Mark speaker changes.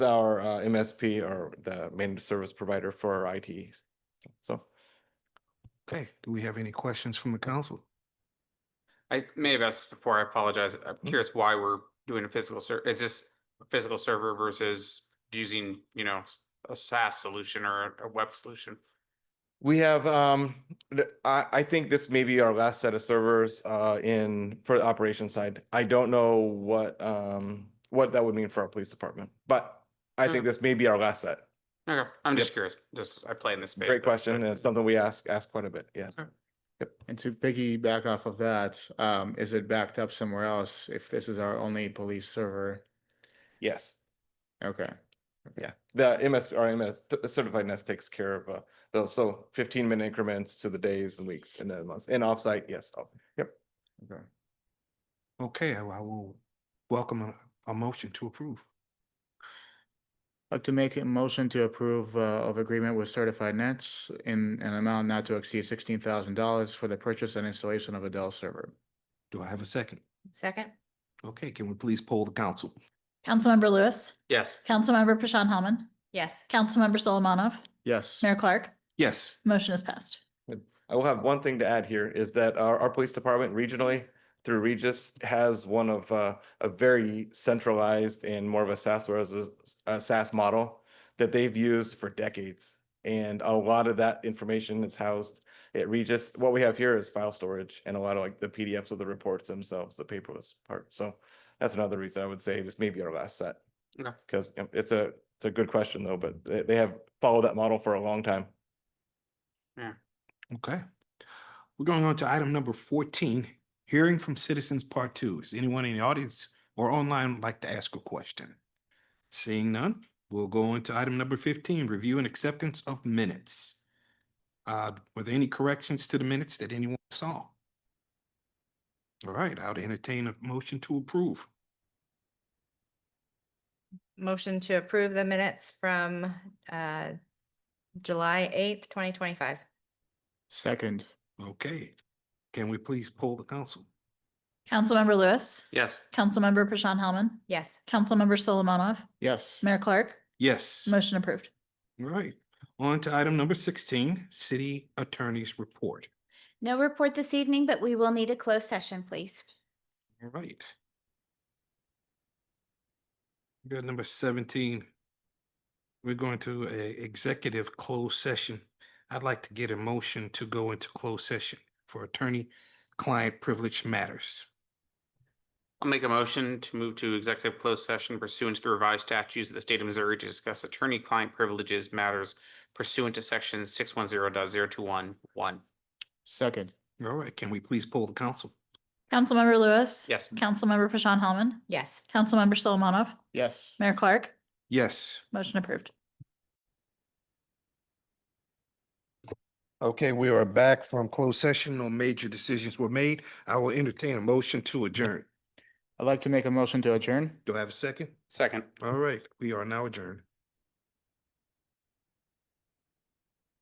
Speaker 1: our uh, MSP or the managed service provider for our IT. So.
Speaker 2: Okay, do we have any questions from the council?
Speaker 3: I may have asked this before, I apologize. I'm
Speaker 1: Mm-hmm.
Speaker 3: curious why we're doing a physical ser, is this a physical server versus using, you know, s- a SaaS solution or a web solution?
Speaker 1: We have, um, th- I, I think this may be our last set of servers, uh, in, for the operations side. I don't know what, um, what that would mean for our police department, but I think
Speaker 3: Mm.
Speaker 1: this may be our last set.
Speaker 3: Okay, I'm just curious, just, I play in this space.
Speaker 1: Great
Speaker 3: but-
Speaker 1: question, and it's something we ask, ask quite a bit, yeah.
Speaker 4: And to piggyback off of that, um, is it backed up somewhere else if this is our only police server?
Speaker 1: Yes,
Speaker 4: Okay.
Speaker 1: yeah. The MS, our MS th- certified nest takes care of, uh, those, so fifteen minute increments to the days and weeks and then months, and offsite, yes, oh, yep.
Speaker 4: Okay.
Speaker 2: Okay, I I will welcome a- a, motion to approve.
Speaker 4: I'd Like to make a motion to approve, uh, of agreement with Certified Nets in an amount not to exceed sixteen thousand dollars for the purchase and installation of a Dell server.
Speaker 2: Do I have a second?
Speaker 5: Second.
Speaker 2: Okay, can we please poll the council?
Speaker 6: Councilmember Lewis,
Speaker 3: Yes,
Speaker 6: Councilmember Pashon Hellman,
Speaker 5: Yes.
Speaker 6: Councilmember Solomonov,
Speaker 4: Yes.
Speaker 6: Mayor Clark,
Speaker 2: Yes.
Speaker 6: motion is passed.
Speaker 1: I will have one thing to add here is that our, our police department regionally through Regis has one of uh, a very centralized and more of a SaaS or as a, a SaaS model that they've used for decades. And a lot of that information is housed at Regis. What we have here is file storage and a lot of like the PDFs of the reports themselves, the paperless part. So that's another reason I would say this may be our last set.
Speaker 3: Okay.
Speaker 1: Because it's a, it's a good question though, but they, they have followed that model for a long time.
Speaker 2: Okay. We're going on to item number fourteen, hearing from citizens part two. Is anyone in the audience or online would like to ask a question? Seeing none, we'll go on to item number fifteen, review and acceptance of minutes. Uh, were there any corrections to the minutes that anyone saw? All right, I'll entertain a motion to approve.
Speaker 5: Motion to approve the minutes from uh, July eighth, twenty twenty-five.
Speaker 4: Second.
Speaker 2: Okay, can we please poll the council?
Speaker 6: Councilmember Lewis,
Speaker 3: yes,
Speaker 6: Councilmember Pashon Hellman,
Speaker 5: Yes.
Speaker 6: Councilmember Solomonov,
Speaker 4: Yes.
Speaker 6: Mayor Clark,
Speaker 2: Yes.
Speaker 6: motion approved.
Speaker 2: Right. On to item number sixteen, city attorney's report.
Speaker 7: No report this evening, but we will need a closed session, please.
Speaker 2: All right. We Got number seventeen. We're going to a executive closed session. I'd like to get a motion to go into closed session for attorney-client privilege matters.
Speaker 3: I'll make a motion to move to executive closed session pursuant to the revised statutes of the state of Missouri to discuss attorney-client privileges matters pursuant to section six one zero dot zero two one one.
Speaker 4: Second.
Speaker 2: All right, can we please poll the council?
Speaker 6: Councilmember Lewis.
Speaker 3: Yes.
Speaker 6: Councilmember Pashon Hellman,
Speaker 5: Yes.
Speaker 6: Councilmember Solomonov,
Speaker 4: Yes.
Speaker 6: Mayor Clark,
Speaker 2: Yes.
Speaker 6: motion approved.
Speaker 2: Okay, we are back from closed session. No major decisions were made. I will entertain a motion to adjourn.
Speaker 4: I'd like to make a motion to adjourn.
Speaker 2: Do I have a second?
Speaker 3: Second.
Speaker 2: All right, we are now adjourned.